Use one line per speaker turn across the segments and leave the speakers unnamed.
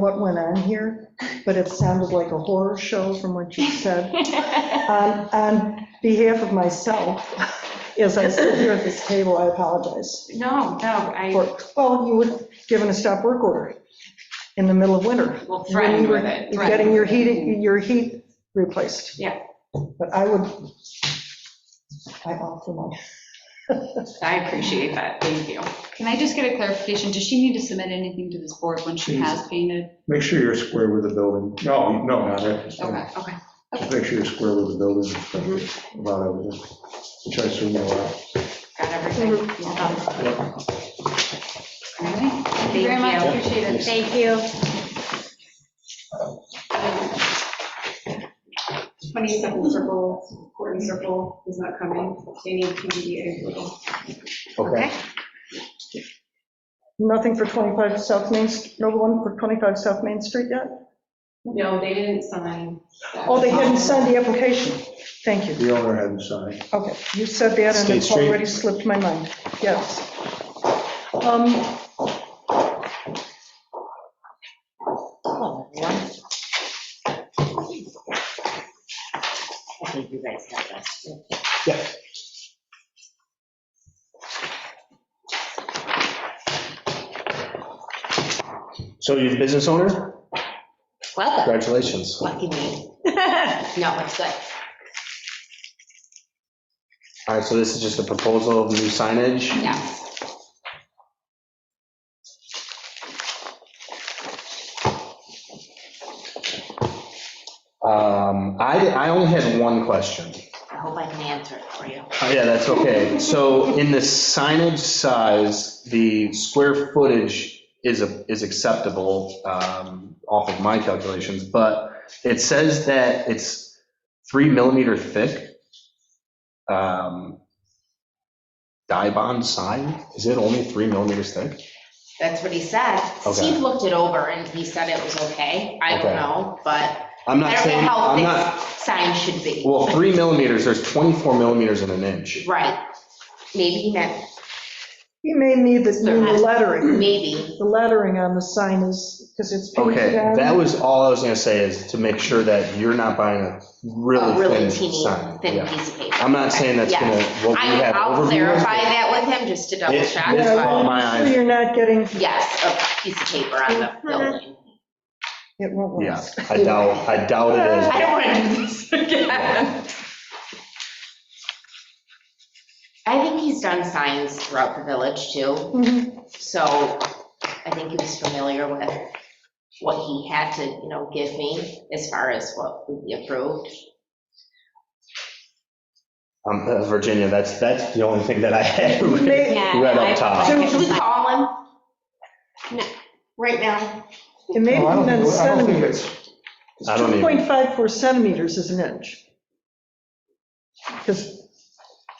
what went on here, but it sounded like a horror show from what you said.
Um,
On on behalf of myself, as I sit here at this table, I apologize.
No, no, I
for- Well, you would given a stop work order in the middle of winter.
will threaten with
When
it.
you were
threaten.
Getting your heat, your heat replaced.
Yeah.
But I would, I offer my,
I appreciate that, thank you.
Can I just get a clarification? Does she need to submit anything to this board when she has painted?
Make sure you're square with the building. No, no, not
Okay,
that.
okay.
Just make sure you're square with the building inspector about everything, which I assume you are.
Got everything. Well
Mm-hmm.
done.
All right. Thank you very
Thank
much,
you.
appreciate it.
Thank you.
22nd Circle, Courtney Circle is not coming. They need PDA approval.
Okay.
nothing for 25 South Main, no one for 25 South Main Street yet?
No, they didn't sign. that.
Oh, they hadn't signed the application. Thank you.
The owner hadn't signed.
Okay, you said that, and
State
it's
Street.
already slipped my mind, yes. Um,
I think you guys have that.
So you're the business owner?
Welcome,
Congratulations.
lucky me. No, it's good.
All right, so this is just a proposal of new signage.
Yes.
Um, I, I only had one question.
I hope I can answer it for you.
Oh, yeah, that's okay. So in the signage size, the square footage is, a- is acceptable um, off of my calculations, but it says that it's three millimeter thick. um, Die bond sign, is it only three millimeters thick?
That's what he said.
Okay.
Steve looked it over and he said it was okay. I don't
Okay.
know, but
I'm
I don't
not
know
saying,
how
I'm not,
thick signs should be.
Well, three millimeters, there's 24 millimeters in an inch.
Right. Maybe he meant,
You may need the new lettering.
maybe.
The lettering on the sign is, because it's
Okay,
painted on.
that was all I was gonna say, is to make sure that you're not buying a really
a really
thin
teeny,
sign.
thin
Yeah.
piece of paper.
I'm not saying that's
Yeah.
gonna, what we
I-
have
I'll
overview is,
clarify that with him just to double
It-
check.
it's
Yeah,
but
well,
my eyes.
So you're not getting,
Yes, a Uh-huh. piece of paper on the building.
it won't
Yeah,
last.
I doubt, I doubt it is.
I don't want to do this again. I think he's done signs throughout the village too,
Mhm.
so I think he was familiar with what he had to, you know, give me as far as what would be approved.
Um, uh, Virginia, that's, that's the only thing that I had
May-
right up top.
Should we call him? No, Right now?
It may be
No, Oh, I don't
in
think- I don't think
centimeters.
it's-
It's
I don't even-
2.54 centimeters is an inch. Because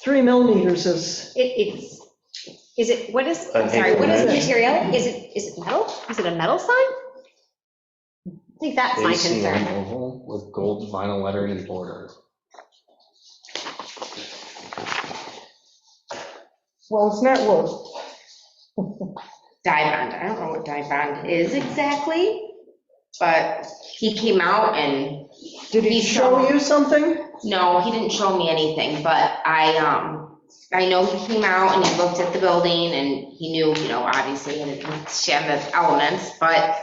three millimeters is,
It, it's, is it, what is,
An
I'm sorry, what is the
increment.
material? Is it, is it metal? Is it a metal sign? I think that's my
ACM
concern.
oval with gold vinyl lettering and border.
well, it's not wood.
Dye bond, I don't know what dye bond is exactly, but he came out and
Did he
He
show
showed.
you something?
No, he didn't show me anything, but I, um, I know he came out and he looked at the building and he knew, you know, obviously, and she had the elements, but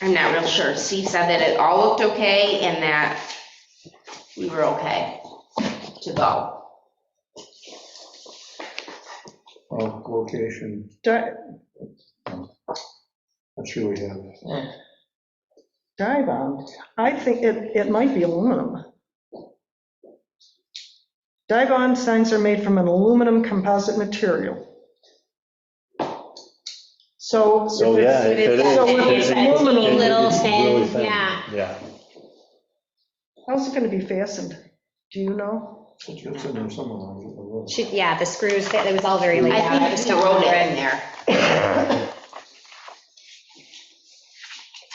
I'm not real sure. Steve said that it all looked okay and that we were okay to go.
Oh, location,
Di-
I'm sure we have. it.
Dye bond, I think it, it might be aluminum. Dye bond signs are made from an aluminum composite material. So. if
So,
it's-
Oh, yeah, it it is.
So if
it
it's
is-
aluminum,
little
it's really
thin, yeah.
Yeah.
how's it gonna be fastened? Do you know?
It's in there somewhere. I don't know.
Should, yeah, the screws, that it was all very laid out.
I think
just
he
don't
wrote
remember
it in there.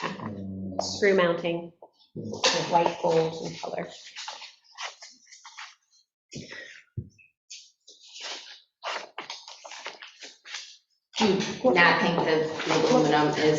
Um,
Screw mounting, with white gold and color.
Do not think that the aluminum is